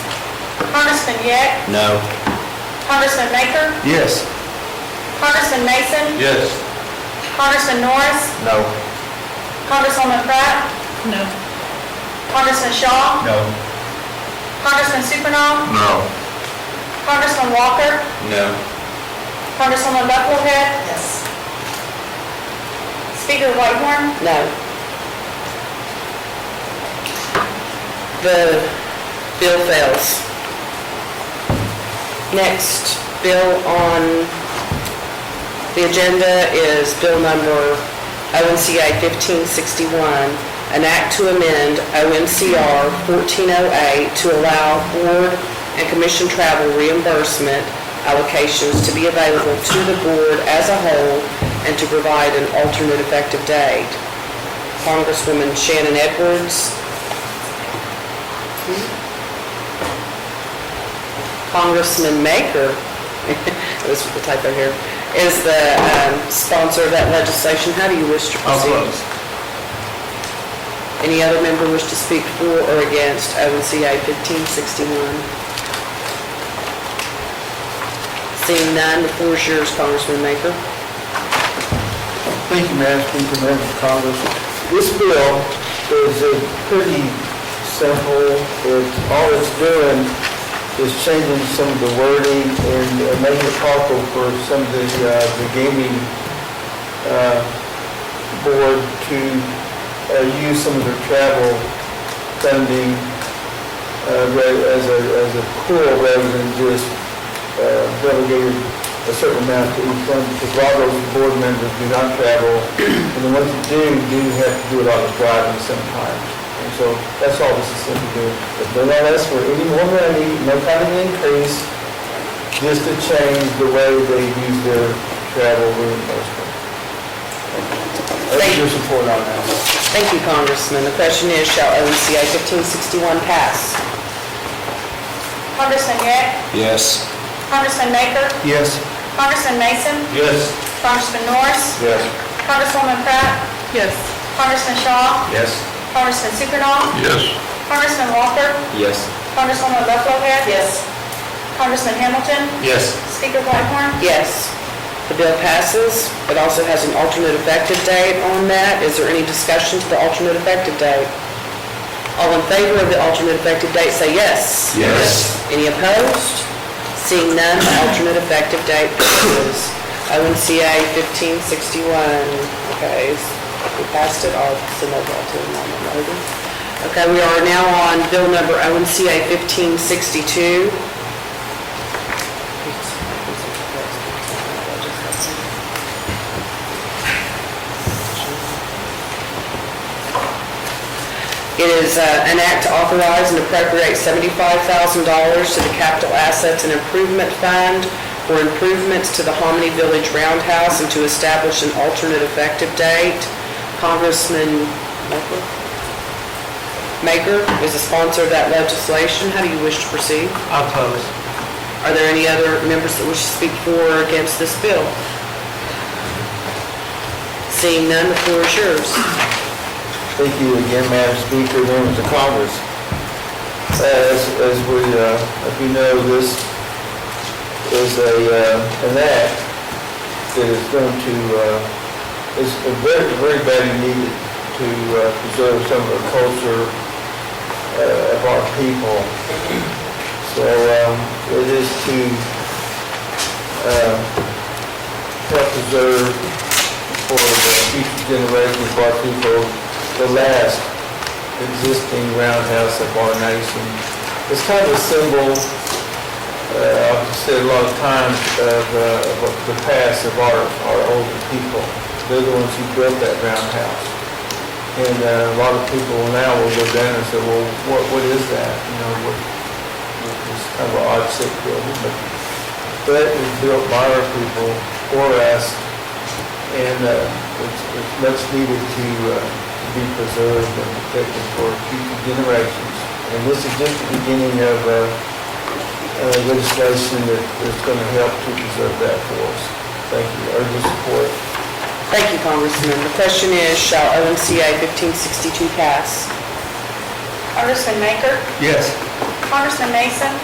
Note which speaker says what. Speaker 1: Congressman Yeck,
Speaker 2: No.
Speaker 1: Congressman Maker,
Speaker 2: Yes.
Speaker 1: Congressman Mason,
Speaker 2: Yes.
Speaker 1: Congressman Norris,
Speaker 2: No.
Speaker 1: Congresswoman Pratt,
Speaker 3: No.
Speaker 1: Congressman Shaw,
Speaker 2: No.
Speaker 1: Congressman Suppanoff,
Speaker 2: No.
Speaker 1: Congressman Walker,
Speaker 2: No.
Speaker 1: Congresswoman Bucklehead,
Speaker 3: Yes.
Speaker 1: Speaker Whitehorn,
Speaker 4: No. The bill fails. Next bill on the agenda is bill number ONCA 1561, an act to amend OMCR 1408 to allow board and commission travel reimbursement allocations to be available to the board as a whole and to provide an alternate effective date. Congresswoman Shannon Edwards. Congressman Maker, it was the typo here, is the um, sponsor of that legislation. How do you wish to proceed? Any other member wish to speak for or against ONCA 1561? Seeing none, the floor is yours, Congressman Maker.
Speaker 5: Thank you, Madam Speaker, members of Congress. This bill is a pretty simple, it's, all it's doing is changing some of the wording and uh, making it proper for some of the, uh, the gaming, uh, board to, uh, use some of their travel funding, uh, ra- as a, as a pool rather than just, uh, delegated a certain amount to each one, because a lot of those board members do not travel, and the ones that do, do have to do a lot of driving sometimes. And so that's all this is simply doing. But they're not asking for any more money, no kind of increase, just to change the way they use their travel reimbursement. That's your support on that.
Speaker 4: Thank you, Congressman. The question is, shall ONCA 1561 pass?
Speaker 1: Congressman Yeck,
Speaker 2: Yes.
Speaker 1: Congressman Maker,
Speaker 5: Yes.
Speaker 1: Congressman Mason,
Speaker 2: Yes.
Speaker 1: Congressman Norris,
Speaker 2: Yes.
Speaker 1: Congresswoman Pratt,
Speaker 4: Yes.
Speaker 1: Congressman Shaw,
Speaker 2: Yes.
Speaker 1: Congressman Suppanoff,
Speaker 2: Yes.
Speaker 1: Congressman Walker,
Speaker 2: Yes.
Speaker 1: Congresswoman Bucklehead,
Speaker 4: Yes.
Speaker 1: Congressman Hamilton,
Speaker 2: Yes.
Speaker 1: Speaker Whitehorn,
Speaker 4: Yes. The bill passes. It also has an alternate effective date on that. Is there any discussion to the alternate effective date? All in favor of the alternate effective date, say yes.
Speaker 2: Yes.
Speaker 4: Any opposed? Seeing none, the alternate effective date passes. ONCA 1561, okay, is- we passed it, I'll send that all to the moment, Logan. Okay, we are now on bill number ONCA 1562. It is uh, an act to authorize and appropriate $75,000 to the Capital Assets and Improvement Fund for improvements to the Hominy Village Roundhouse and to establish an alternate effective date. Congressman Maker- Maker is the sponsor of that legislation. How do you wish to proceed?
Speaker 5: Oppose.
Speaker 4: Are there any other members that wish to speak for or against this bill? Seeing none, the floor is yours.
Speaker 5: Thank you again, Madam Speaker, members of Congress. As, as we, uh, as we know, this is a, uh, an act that is going to, uh, is a very, very badly needed to uh, preserve some of the culture uh, of our people. So, um, it is to, uh, help preserve for the future generations of our people, the last existing roundhouse of our nation. It's kind of a symbol, uh, I've said a lot of times, of, uh, of the past of our, our older people. They're the ones who built that roundhouse. And uh, a lot of people now will go down and say, well, what, what is that? You know, what, it's kind of an odd sick building, but that was built by our people for us and uh, it's it's much needed to uh, to be preserved and protected for future generations. And this is just the beginning of uh, uh, legislation that is going to help to preserve that for us. Thank you. Urge your support.
Speaker 4: Thank you, Congressman. The question is, shall OMCA 1562 pass?
Speaker 1: Congressman Maker,
Speaker 5: Yes.
Speaker 1: Congressman Mason,